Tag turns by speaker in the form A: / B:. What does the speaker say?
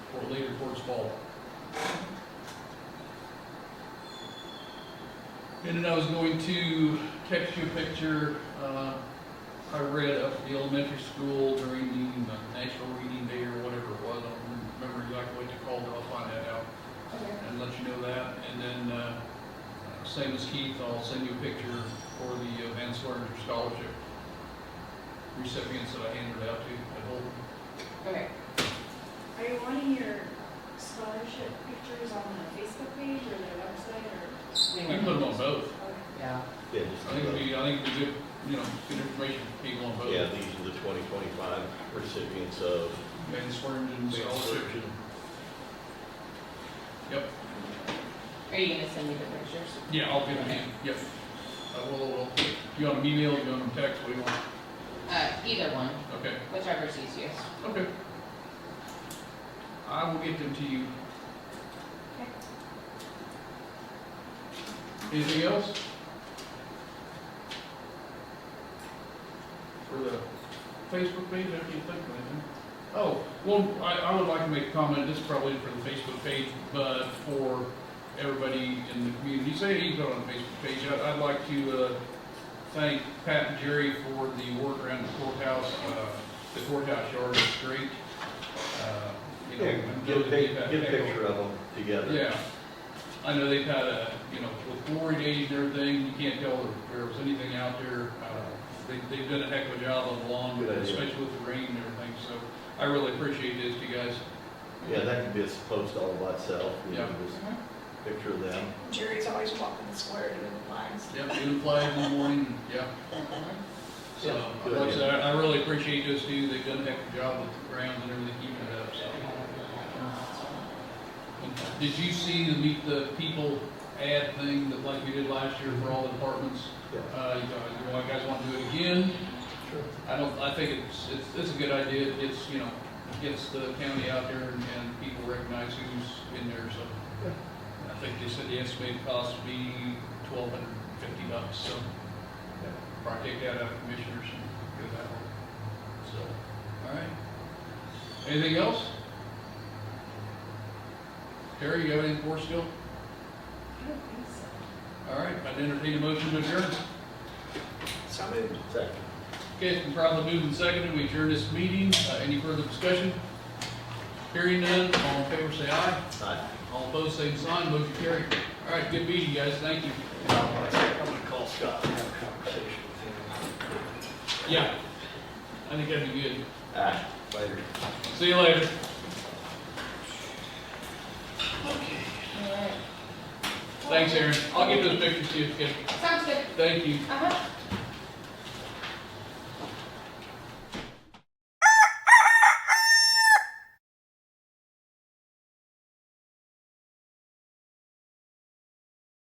A: later towards fall. And then I was going to text you a picture, uh, I read up at the elementary school during the uh, National Reading Day or whatever it was, I don't remember exactly what they called it, I'll find that out
B: Okay.
A: and let you know that. And then, uh, uh, same as Keith, I'll send you a picture for the uh, Van Swerger Scholarship recipients that I handed out to at Holden.
B: Okay.
C: Are you wanting your scholarship pictures on the Facebook page or the website or?
A: We can put them on both.
C: okay.
B: Yeah,
A: I
D: Yeah,
A: think it'd
D: just,
A: be, I think it'd be good, you know, good information for people on
D: uh,
A: both.
D: yeah, these are the twenty twenty-five recipients of
A: Van Swerger
D: Van
A: Scholarship.
D: Swergen.
A: Yep,
B: are you gonna send me the pictures?
A: yeah, I'll get them, in. yep. I will, will. You want them email, you want them text, what do you want?
B: Uh, either one,
A: Okay,
B: whichever's easiest.
A: okay. I will get them to you. Anything else? For the Facebook page, I can't think of anything. Oh, well, I, I would like to make a comment, this is probably for the Facebook page, but for everybody in the community, say he's not on the Facebook page, I'd, I'd like to, uh, thank Pat and Jerry for the work around the courthouse, uh, the courthouse yard is great. Uh, you know,
D: Yeah, Get a
A: those
D: pic,
A: that have
D: get a
A: echo-
D: picture of them together.
A: yeah, I know they've had a, you know, with glory days and everything, you can't tell if there was anything out there. Uh, They, they've done a heck of a job on the lawn,
D: Good idea.
A: especially with the rain and everything, so I really appreciate this, you guys.
D: Yeah, that could be a post all by itself, you know,
A: Yeah.
D: just picture of them.
E: Jerry's always walking the square doing the lines.
A: Yep, doing flag in the morning, yeah. So,
D: Yeah, good
A: like I
D: idea.
A: said, I I really appreciate those two, they've done a heck of a job with the grounds and everything, keeping it up, so. Did you see the meet the people ad thing that like we did last year for all the departments?
D: Yeah.
A: Uh, you know, you know, you guys want to do it again?
D: Sure.
A: I don't, I think it's, it's, it's a good idea, it's, you know, gets the county out there and, and people recognize who's in there, so. I think they said the estimated cost would be twelve hundred and fifty bucks, so. Probably take that out of commissioners and go that way, so, all right. Anything else? Terry, you have anything for us still?
C: I don't think so.
A: All right, I'd entertain a motion to adjourn.
E: So moved.
D: Second.
A: Okay, it's been properly moved and seconded, we adjourn this meeting, uh, any further discussion? Hearing none, all in favor say aye,
D: Aye.
A: all opposed same sign, motion carried. All right, good meeting, guys, thank you.
D: I'm gonna call Scott and have a conversation
A: Yeah, I think that'd be good.
D: with him. Aye, later.
A: See you later. Thanks, Aaron, I'll give those pictures to you, okay?
B: Sounds good.
A: thank you.
B: Uh-huh.